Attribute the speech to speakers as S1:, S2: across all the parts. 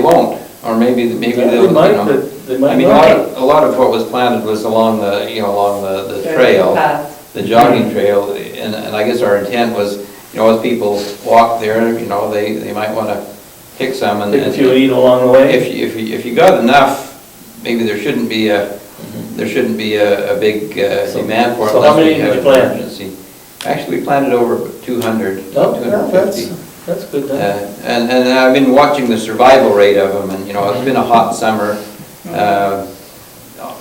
S1: won't, or maybe, maybe
S2: Yeah,
S1: they'll,
S2: they
S1: you
S2: might,
S1: know.
S2: but they might
S1: I mean, a lot,
S2: not.
S1: of- a lot of what was planted was along the, you know, along the, the trail,
S3: Path.
S1: the jogging trail, and, and I guess our intent was, you know, as people walk there, you know, they, they might wanna pick some and.
S2: Take a
S1: and-
S2: few eat along the way.
S1: If, you- if, you- if you got enough, maybe there shouldn't be a, there shouldn't be a, a big uh,
S2: So-
S1: demand for it.
S2: so how
S1: unless we
S2: many did
S1: have
S2: you
S1: an
S2: plant?
S1: emergency. Actually, we planted over 200,
S2: No, no,
S1: 250.
S2: Oh, that's, that's good
S1: Uh,
S2: then.
S1: And, and I've been watching the survival rate of them, and, you know, it's been
S3: Mm-hmm.
S1: a hot summer. Uh,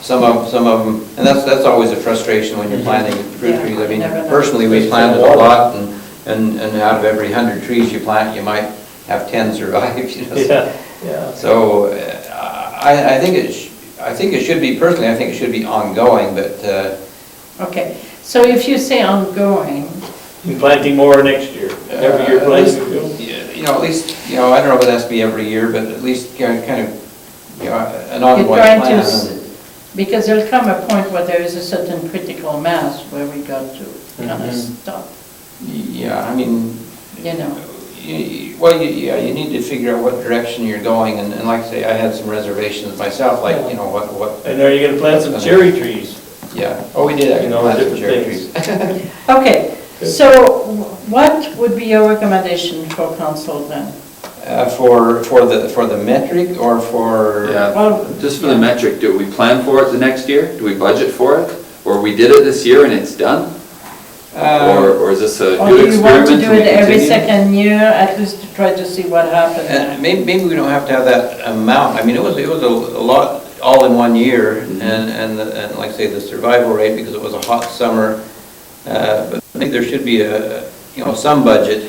S1: Some of, some of them, and that's, that's always a frustration when you're planting fruit
S3: Mm-hmm. Yeah,
S1: trees. I
S3: you
S1: mean,
S3: never know.
S1: personally, we planted a lot, and, and and out of every 100 trees you plant, you might have 10 survive, you know. so-
S2: Yeah, yeah.
S1: so uh, I, I think it, sh- I think it should be, personally, I think it should be ongoing, but, uh,
S3: Okay, so if you say ongoing,
S2: And planting more next year, every year
S1: Uh,
S2: planting.
S1: yeah, you know, at least, you know, I don't know if it has to be every year, but at least you know, kind of, you know, an
S3: you're
S1: ongoing
S3: trying to,
S1: plan.
S3: s- because there'll come a point where there is a certain critical mass where we got to kind of
S2: Mhm.
S3: stop,
S1: Yeah, I mean,
S3: you know.
S1: you- you- well, you- yeah, you need to figure out what direction you're going, and and like I say, I had some reservations myself, like, you know, what, what,
S2: And are you gonna plant some cherry trees?
S1: yeah, oh, we did
S2: You
S1: actually
S2: know,
S1: plant some
S2: different
S1: cherry
S2: things.
S1: trees.
S3: Okay, so what would be your recommendation for council then?
S1: Uh, For, for the, for the metric or for?
S3: Well,
S4: Yeah, just for the
S3: yeah.
S4: metric, do we plan for it the next year? Do we budget for it? Or we did it this year and it's done?
S1: Uh,
S4: Or, or is this a
S3: Or do
S4: good
S3: you want
S4: experiment?
S3: to do
S4: and we
S3: it every
S4: continue?
S3: second year, at least to try to see what
S1: And
S3: happens?
S1: maybe, maybe we don't have to have that amount, I mean, it was, it was a a lot, all in one year,
S5: Mm-hmm.
S1: and, and, the- and like I say, the survival rate, because it was a hot summer, uh, but I think there should be a, you know, some budget,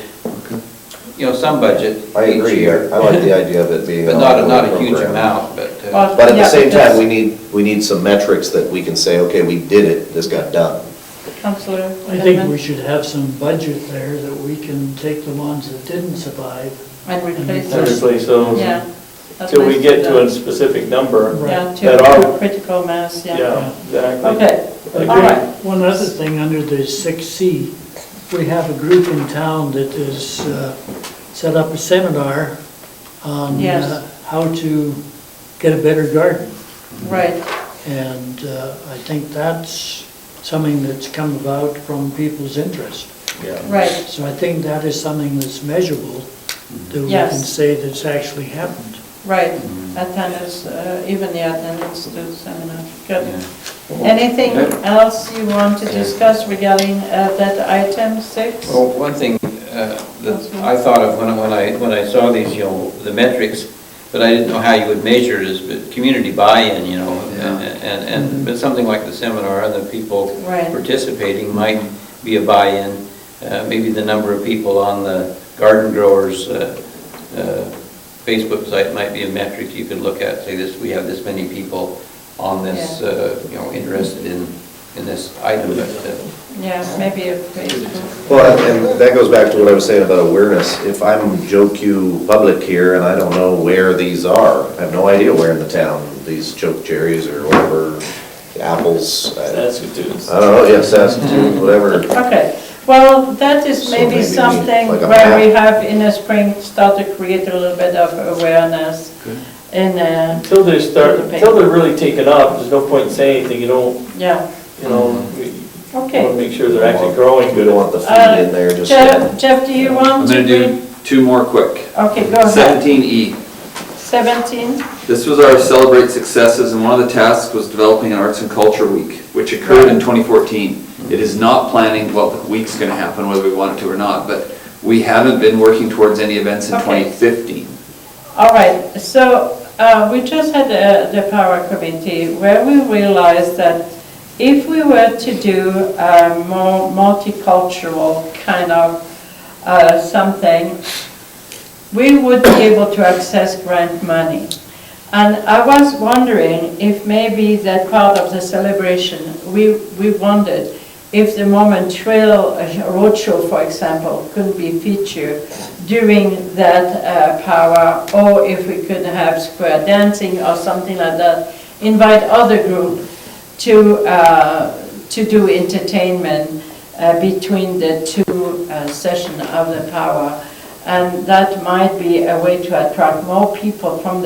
S1: you know, some budget
S5: I
S1: each
S5: agree,
S1: year,
S5: I like the idea of it being.
S1: but
S5: an
S1: not, a-
S5: ongoing
S1: not a huge
S5: program.
S1: amount, but, uh,
S3: Well,
S5: But at
S3: yeah,
S5: the same time,
S3: because-
S5: we need, we need some metrics that we can say, okay, we did it, this got done.
S3: Councillor
S6: I think we
S3: Goodman?
S6: should have some budget there that we can take the ones that didn't survive.
S3: And replace
S6: And
S3: it,
S2: Seriously, so,
S3: yeah. That's
S2: till we
S3: nice
S2: get to a
S3: do.
S2: specific number.
S3: Yeah,
S2: that
S3: to
S2: are-
S3: a critical mass, yeah.
S2: Yeah, exactly.
S3: Okay,
S2: Agree.
S3: all right.
S6: One other thing, under the 6C, we have a group in town that has uh, set up a seminar on
S3: Yes.
S6: uh, how to get a better garden.
S3: Right,
S6: And uh, I think that's something that's come about from people's interest.
S2: Yeah.
S3: right.
S6: So I think that is something that's measurable, that we can
S3: Yes.
S6: say that's actually happened.
S3: Right, attendance, uh, even the attendance to seminar. Good.
S1: yeah.
S3: Anything
S1: Yeah.
S3: else you want to discuss regarding uh, that item six?
S1: Well, one thing uh, that I thought of when I- when I, when I saw these, you know, the metrics, but I didn't know how you would measure it, is but community buy-in, you know, and, and- and, but something like the seminar and the people
S3: Right.
S1: participating might be a buy-in. Uh, Maybe the number of people on the garden growers' uh, uh, Facebook site might be a metric you could look at, say this, we have this many people on this,
S3: Yeah.
S1: uh, you know, interested in, in this item, but uh,
S3: Yeah, maybe a Facebook.
S5: Well, and and that goes back to what I was saying about awareness. If I'm Joe Q public here and I don't know where these are, I have no idea where in the town these choke cherries or whatever, apples, I
S2: That's good too.
S5: I don't know, yes, saskatoon, whatever.
S3: Okay, well, that is
S5: So
S3: maybe
S5: maybe
S3: something
S5: like a
S3: where we
S5: map.
S3: have in the spring start to create a little bit of awareness in, uh,
S2: Until they start, until they're really taken off, there's no point in saying anything, you don't,
S3: yeah,
S2: you know,
S1: Mm-hmm.
S2: we want to
S3: okay.
S2: make sure they're actually growing
S5: We
S2: good.
S5: don't want the
S3: Uh,
S5: feed in there just.
S3: Jeff, Jeff, do you
S4: I'm
S3: want to?
S4: gonna
S3: read?
S4: do two more quick.
S3: Okay, go ahead.
S4: Seventeen E.
S3: 17,
S4: This was our celebrate successes, and one of the tasks was developing an arts and culture week, which occurred in 2014. It is not planning what the week's gonna happen, whether we want it to or not, but we haven't been working towards any events in
S3: Okay.
S4: 2015.
S3: all right, so uh, we just had uh, the power committee where we realized that if we were to do a more multicultural kind of uh, something, we would be able to access grant money. And I was wondering if maybe that part of the celebration, we, we wondered if the Mormon Trail uh, Roadshow, for example, could be featured during that uh, power, or if we could have square dancing or something like that, invite other group to, uh, to do entertainment uh, between the two uh, session of the power. And that might be a way to attract more people from the